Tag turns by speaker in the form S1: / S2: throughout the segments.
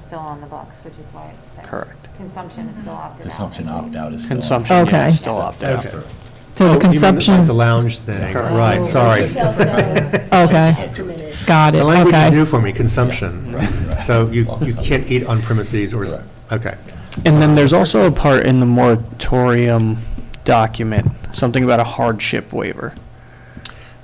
S1: still on the books, which is why it's there.
S2: Correct.
S1: Consumption is still opted out.
S3: Consumption opt-out is still.
S2: Consumption
S4: Okay.
S2: is still up.
S3: After.
S5: Okay.
S4: So the
S5: Oh, you mean like
S4: consumption,
S5: The lounge thing,
S2: Correct.
S5: right,
S2: Oh.
S5: sorry.
S2: Retail
S4: okay, got it,
S5: The language is new
S4: okay.
S5: for me, consumption. So you, you can't eat on premises or, s- okay.
S2: And then there's also a part in the moratorium document, something about a hardship waiver.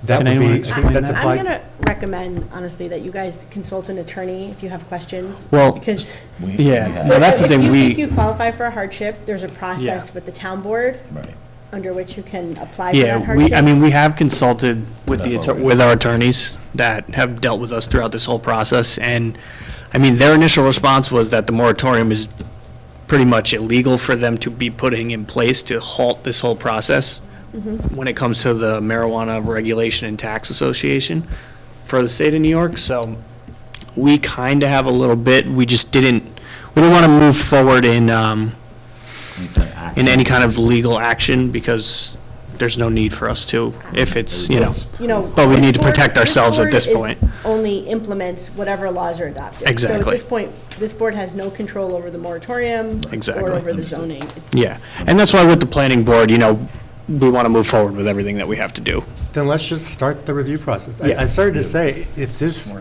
S5: That
S2: Can
S5: would
S2: anyone
S5: be, I think
S2: explain
S5: that's
S2: that?
S6: I'm going
S5: applied,
S6: to recommend, honestly, that you guys consult an attorney if you have questions.
S2: Well,
S6: Because.
S3: We- we
S2: Yeah,
S3: have-
S2: no, that's the thing,
S6: If you think
S2: we,
S6: you qualify for a hardship, there's a
S2: Yeah.
S6: process with the town board
S3: Right.
S6: under which you can apply for that
S2: yeah, we,
S6: hardship.
S2: I mean, we have consulted with the,
S3: That's
S2: atter-
S3: what we-
S2: with our attorneys that have dealt with us throughout this whole process, and, I mean, their initial response was that the moratorium is pretty much illegal for them to be putting in place to halt this whole process when it comes to the marijuana regulation and tax association for the state of New York, so we kind of have a little bit, we just didn't, we didn't want to move forward in, um, in any kind of legal action because there's no need for us to if it's, you know.
S6: You know.
S2: But we need to
S6: this board-
S2: protect ourselves at this
S6: board is-
S2: point.
S6: Only implements whatever laws are adopted. So
S2: Exactly.
S6: at this point, this board has no control over the moratorium.
S2: Exactly.
S6: Or over the zoning. It's-
S2: Yeah, and that's why with the planning board, you know, we want to move forward with everything that we have to do.
S5: then let's just start the review process. I-
S2: Yeah.
S5: I started to say, if this,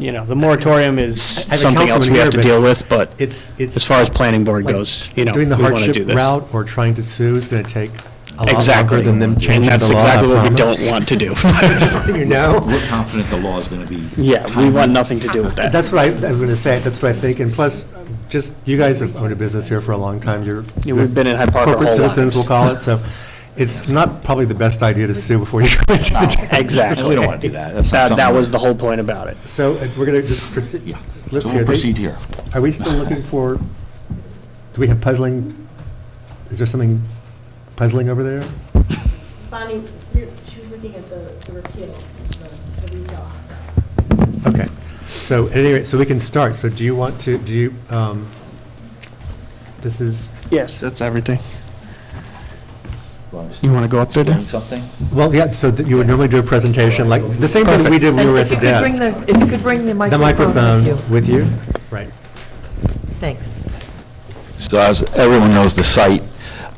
S2: You know, the moratorium is
S5: a
S2: something else
S5: councilman
S2: we have
S5: here,
S2: to
S5: but
S2: deal with, but
S5: it's, it's.
S2: as far as planning board
S5: like
S2: goes, you know, we
S5: Doing the
S2: want to
S5: hardship
S2: do this.
S5: route or trying to sue is going to take a lot
S2: Exactly.
S5: longer than them
S2: And
S5: changing the law.
S2: that's
S5: I
S2: exactly what we
S5: promise.
S2: don't want to do.
S5: Just so you know.
S3: We're confident the law is going to be.
S2: Yeah, we want nothing to do with that.
S5: That's what I, I was going to say, that's what I think, and plus, just, you guys have owned a business here for a long time, you're.
S2: Yeah, we've been in Hyde Park our
S5: Corporate
S2: whole
S5: citizens, we'll
S2: lives.
S5: call it, so it's not probably the best idea to sue before you go into the town.
S2: Exactly.
S3: And we don't want to do that. That's not
S2: That, that
S3: something-
S2: was the whole point about it.
S5: So uh, we're going to just proceed,
S3: Yeah.
S5: let's
S3: So
S5: hear,
S3: we'll
S5: they-
S3: proceed here.
S5: are we still looking for, do we have puzzling, is there something puzzling over there?
S6: Bonnie, you're- she was looking at the the repeal, of the the retail opt-out.
S5: Okay, so at any rate, so we can start, so do you want to, do you, um, this is,
S2: Yes, that's everything.
S3: Well,
S2: You want to go up there, Dan?
S3: Doing something?
S5: well, yeah, so that you would normally do a presentation, like, the same thing that we did when
S7: And
S5: we were at
S7: if
S5: the
S7: you could
S5: desk.
S7: bring the- If you could bring the
S5: The
S7: microphone
S5: microphone
S7: with you.
S5: with you? Right.
S7: Thanks.
S3: So as everyone knows, the site,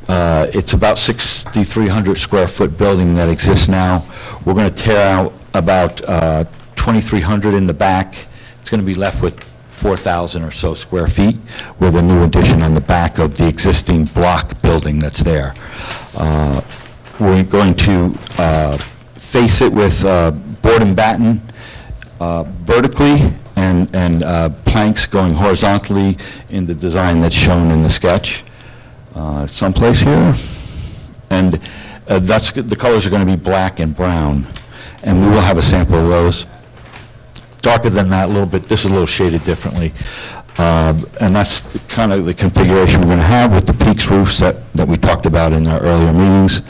S3: uh, it's about 6,300 square foot building that exists now. We're going to tear out about uh, 2,300 in the back. It's going to be left with 4,000 or so square feet with a new addition on the back of the existing block building that's there. Uh, We're going to uh, face it with uh, board and batten uh, vertically and, and uh, planks going horizontally in the design that's shown in the sketch uh, someplace here. And uh, that's, the colors are going to be black and brown, and we will have a sample of those. Darker than that, a little bit, this is a little shaded differently. Um, And that's kind of the configuration we're going to have with the peaks roofs that, that we talked about in our earlier meetings.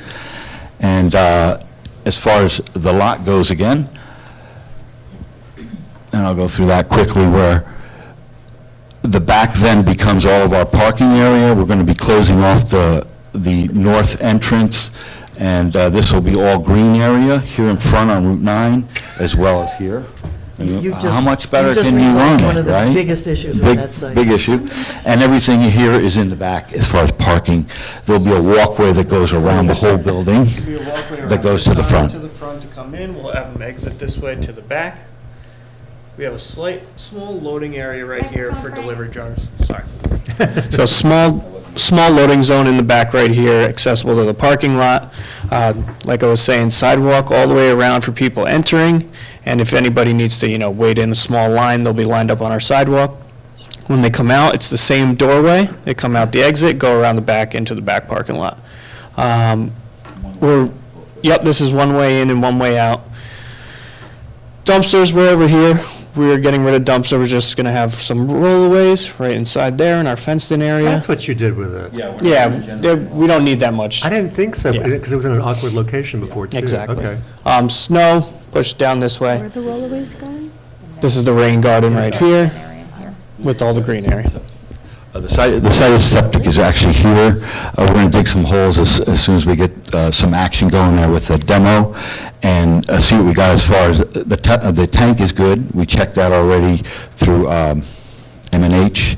S3: And uh, as far as the lot goes again, and I'll go through that quickly, where the back then becomes all of our parking area. We're going to be closing off the, the north entrance, and uh, this will be all green area here in front on Route 9, as well as here. And
S7: You
S3: How
S7: just-
S3: much
S7: you
S3: better
S7: just
S3: can you
S7: resolved
S3: run
S7: one
S3: it,
S7: of the
S3: right?
S7: biggest issues on
S3: Big-
S7: that site.
S3: Big issue. And everything here is in the back as far as parking. There'll be a walkway that goes around the whole building.
S2: Be a walkway around
S3: That goes to the
S2: side,
S3: front.
S2: To the front to come in, we'll have them exit this way to the back. We have a slight, small loading area right here for delivery jars, sorry. So small, small loading zone in the back right here, accessible to the parking lot. Uh, Like I was saying, sidewalk all the way around for people entering, and if anybody needs to, you know, wait in a small line, they'll be lined up on our sidewalk. When they come out, it's the same doorway, they come out the exit, go around the back into the back parking lot. Um, We're, yep, this is one way in and one way out. Dumpsters were over here. We are getting rid of dumpsters. We're just gonna have some rollaways right inside there in our fenced-in area.
S5: That's what you did with it.
S2: Yeah, there- we don't need that much.
S5: I didn't think so,
S2: Yeah.
S5: because it was in an awkward location before, too.
S2: Exactly.
S5: Okay.
S2: Um, snow, push it down this way.
S6: Where are the rollaways going?
S2: This is the rain garden right here
S1: Area here.
S2: with all the green area.
S3: Uh, The site, the site of septic is actually here. Uh, We're going to dig some holes as, as soon as we get uh, some action going there with the demo and uh, see what we got as far as, the, ta- uh, the tank is good. We checked that already through um, m and H.